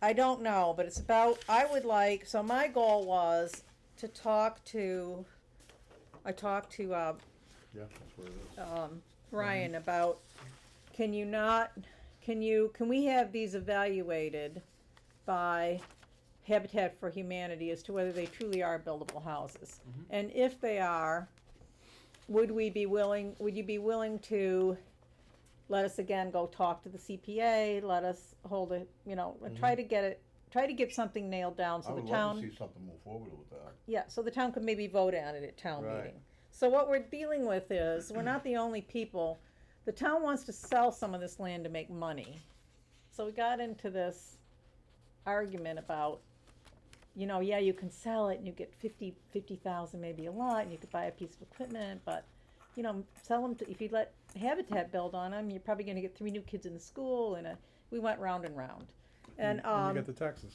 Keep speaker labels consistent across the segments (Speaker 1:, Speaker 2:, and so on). Speaker 1: I don't know, but it's about, I would like, so my goal was to talk to, I talked to, uh,
Speaker 2: Yeah, that's where it is.
Speaker 1: um, Ryan about, can you not, can you, can we have these evaluated by Habitat for Humanity as to whether they truly are buildable houses?
Speaker 2: Mm-hmm.
Speaker 1: And if they are, would we be willing, would you be willing to let us again go talk to the CPA, let us hold a, you know, and try to get it, try to get something nailed down
Speaker 2: Mm-hmm. I
Speaker 1: so the
Speaker 2: would
Speaker 1: town.
Speaker 2: love to see something move forward with that.
Speaker 1: Yeah, so the town could maybe vote on it at town
Speaker 2: Right.
Speaker 1: meeting. So what we're dealing with is, we're not the only people, the town wants to sell some of this land to make money. So we got into this argument about, you know, yeah, you can sell it and you get fifty, fifty thousand maybe a lot, and you could buy a piece of equipment, but, you know, sell them to, if you let Habitat build on them, you're probably gonna get three new kids in the school and a, we went round and round. And, um.
Speaker 3: you get the taxes.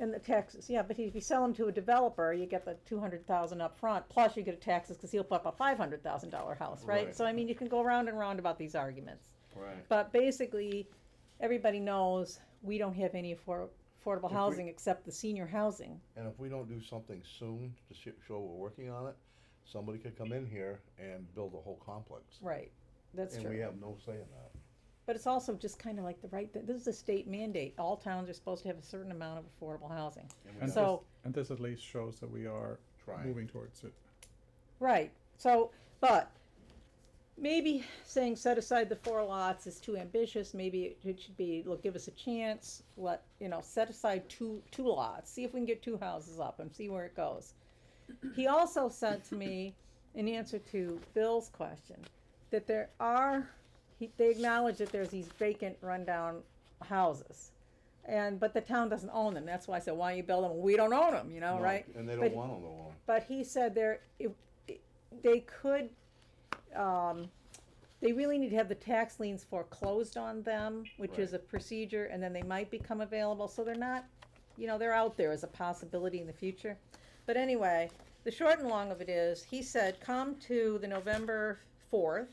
Speaker 1: And the taxes, yeah, but if you sell them to a developer, you get the two hundred thousand up front, plus you get a taxes, cause he'll put up a five hundred thousand dollar house, right?
Speaker 2: Right.
Speaker 1: So I mean, you can go round and round about these arguments,
Speaker 2: Right.
Speaker 1: but basically, everybody knows we don't have any affor- affordable
Speaker 2: we-
Speaker 1: housing except the senior housing.
Speaker 2: And if we don't do something soon to sh- show we're working on it, somebody could come in here and build a whole complex.
Speaker 1: Right. That's
Speaker 2: And we
Speaker 1: true,
Speaker 2: have no say in that.
Speaker 1: but it's also just kinda like the right, th- this is a state mandate, all towns are supposed to have a certain amount of affordable housing.
Speaker 2: And we don't
Speaker 3: And
Speaker 1: So-
Speaker 3: this, and this at least shows that we are
Speaker 2: Try.
Speaker 3: moving towards it.
Speaker 1: Right, so, but maybe saying set aside the four lots is too ambitious, maybe it should be, look, give us a chance, let, you know, set aside two, two lots, see if we can get two houses up and see where it goes. He also said to me, in answer to Bill's question, that there are, he, they acknowledge that there's these vacant rundown houses. And, but the town doesn't own them, that's why I said, why you build them, we don't own them, you know,
Speaker 2: No,
Speaker 1: right?
Speaker 2: And they
Speaker 1: But-
Speaker 2: don't want to know
Speaker 1: but he said there, if, they could, um, they really need to have the tax liens foreclosed on them, which is a
Speaker 2: Right.
Speaker 1: procedure, and then they might become available, so they're not, you know, they're out there as a possibility in the future. But anyway, the short and long of it is, he said, come to the November fourth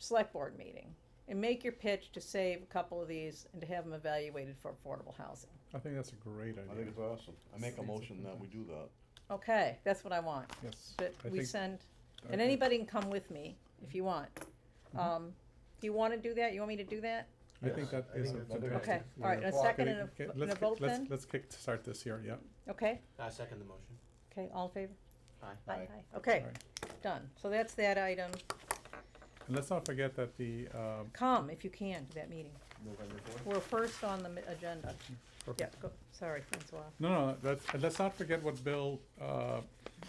Speaker 1: select board meeting and make your pitch to save a couple of these and to have them evaluated for affordable housing.
Speaker 3: I think that's a great
Speaker 2: I think
Speaker 3: idea.
Speaker 2: it's awesome. I make a
Speaker 3: It's-
Speaker 2: motion that we do that.
Speaker 1: Okay, that's what I want.
Speaker 3: Yes.
Speaker 1: that
Speaker 3: I
Speaker 1: we
Speaker 3: think-
Speaker 1: send,
Speaker 3: I
Speaker 1: and
Speaker 3: think-
Speaker 1: anybody can come with me if you want.
Speaker 3: Mm-hmm.
Speaker 1: Um, do you wanna do that? You want me to do that?
Speaker 3: I think that
Speaker 2: I
Speaker 3: is
Speaker 2: think that's
Speaker 3: a
Speaker 2: a good
Speaker 3: fantastic.
Speaker 1: Okay,
Speaker 2: Yeah.
Speaker 1: all right, and a
Speaker 2: Well,
Speaker 1: second and
Speaker 3: idea.
Speaker 1: a,
Speaker 3: Okay,
Speaker 1: and a
Speaker 3: let's, kick-
Speaker 1: vote
Speaker 3: let's,
Speaker 1: then?
Speaker 3: let's kick start this here, yeah.
Speaker 1: Okay,
Speaker 4: I second the motion.
Speaker 1: okay, all in favor?
Speaker 4: Aye.
Speaker 2: Aye.
Speaker 1: Okay,
Speaker 3: Alright.
Speaker 1: done. So that's that item.
Speaker 3: And let's not forget that the, um,
Speaker 1: Come if you can to that meeting.
Speaker 2: November fourth?
Speaker 1: We're first on the mi- agenda. Yeah,
Speaker 3: perfect.
Speaker 1: go, sorry, Francois.
Speaker 3: No, no, that's, and let's not forget what Bill, uh,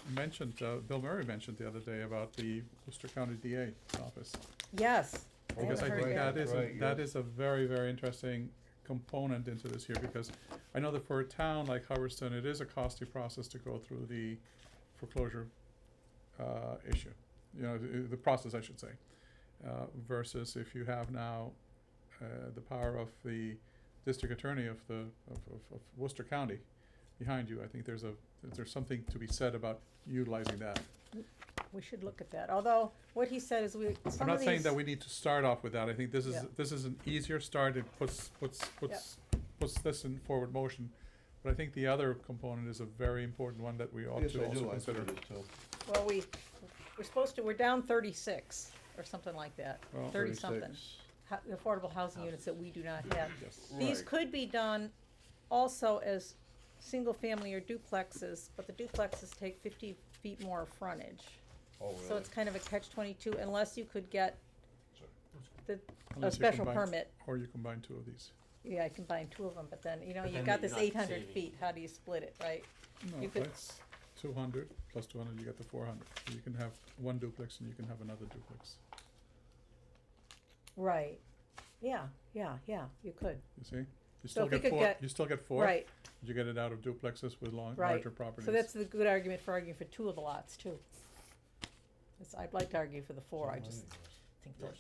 Speaker 3: mentioned, uh, Bill Murray mentioned the other day about the Worcester County DA office.
Speaker 1: Yes. I
Speaker 3: Because I
Speaker 1: haven't heard
Speaker 3: think
Speaker 1: that.
Speaker 3: that is, a-
Speaker 2: Right,
Speaker 3: that
Speaker 2: yeah.
Speaker 3: is a very, very interesting component into this here, because I know that for a town like Hubbardston, it is a costly process to go through the foreclosure, uh, issue. You know, the, the process, I should say, uh, versus if you have now, uh, the power of the district attorney of the, of, of, of Worcester County behind you, I think there's a, there's something to be said about utilizing that.
Speaker 1: We should look at that, although what he said is we,
Speaker 3: I'm
Speaker 1: some of
Speaker 3: not saying
Speaker 1: these,
Speaker 3: that we need to start off with that, I think this is,
Speaker 1: Yeah.
Speaker 3: this is an easier start, it puts, puts, puts, puts this in forward motion. But I think the other component is a very important one that we ought
Speaker 2: Yes,
Speaker 3: to
Speaker 2: I
Speaker 3: also
Speaker 2: do, I think
Speaker 3: consider.
Speaker 2: it is too.
Speaker 1: well, we, we're supposed to, we're down thirty-six or something like that,
Speaker 3: Well,
Speaker 1: thirty something.
Speaker 2: 36.
Speaker 1: hou- affordable housing units that we do not have.
Speaker 3: Yes,
Speaker 1: These
Speaker 2: Right.
Speaker 1: could be done also as single-family or duplexes, but the duplexes take fifty feet more frontage.
Speaker 2: Oh,
Speaker 1: So
Speaker 2: really?
Speaker 1: it's kind of a catch twenty-two unless you could get
Speaker 2: Sorry.
Speaker 1: the, a
Speaker 3: Unless you
Speaker 1: special
Speaker 3: combine-
Speaker 1: permit.
Speaker 3: Or you combine two of these.
Speaker 1: Yeah, I combine two of them, but then, you know,
Speaker 4: But
Speaker 1: you've
Speaker 4: then
Speaker 1: got
Speaker 4: you're
Speaker 1: this
Speaker 4: not
Speaker 1: eight hundred
Speaker 4: saving.
Speaker 1: feet, how do you split it, right?
Speaker 3: No,
Speaker 1: You could-
Speaker 3: that's two hundred, plus two hundred, you get the four hundred. You can have one duplex and you can have another duplex,
Speaker 1: Right, yeah, yeah, yeah, you could,
Speaker 3: you see? You
Speaker 1: So
Speaker 3: still
Speaker 1: if we
Speaker 3: get
Speaker 1: could
Speaker 3: four,
Speaker 1: get-
Speaker 3: you still get four.
Speaker 1: right,
Speaker 3: You get it out of duplexes with long,
Speaker 1: Right.
Speaker 3: larger properties.
Speaker 1: so that's the good argument for arguing for two of the lots too. That's- I'd like to argue for the four, I just think that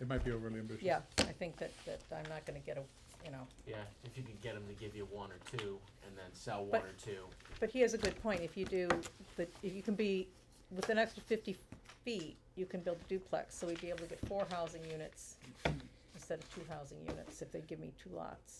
Speaker 3: It might be overly ambitious.
Speaker 1: Yeah, I think that, that I'm not gonna get a, you know,
Speaker 4: Yeah, if you could get them to give you one or two and then sell one
Speaker 1: But-
Speaker 4: or two.
Speaker 1: but he has a good point, if you do, the if you can be, with an extra fifty feet, you can build a duplex, so we'd be able to get four housing units instead of two housing units if they give me two lots.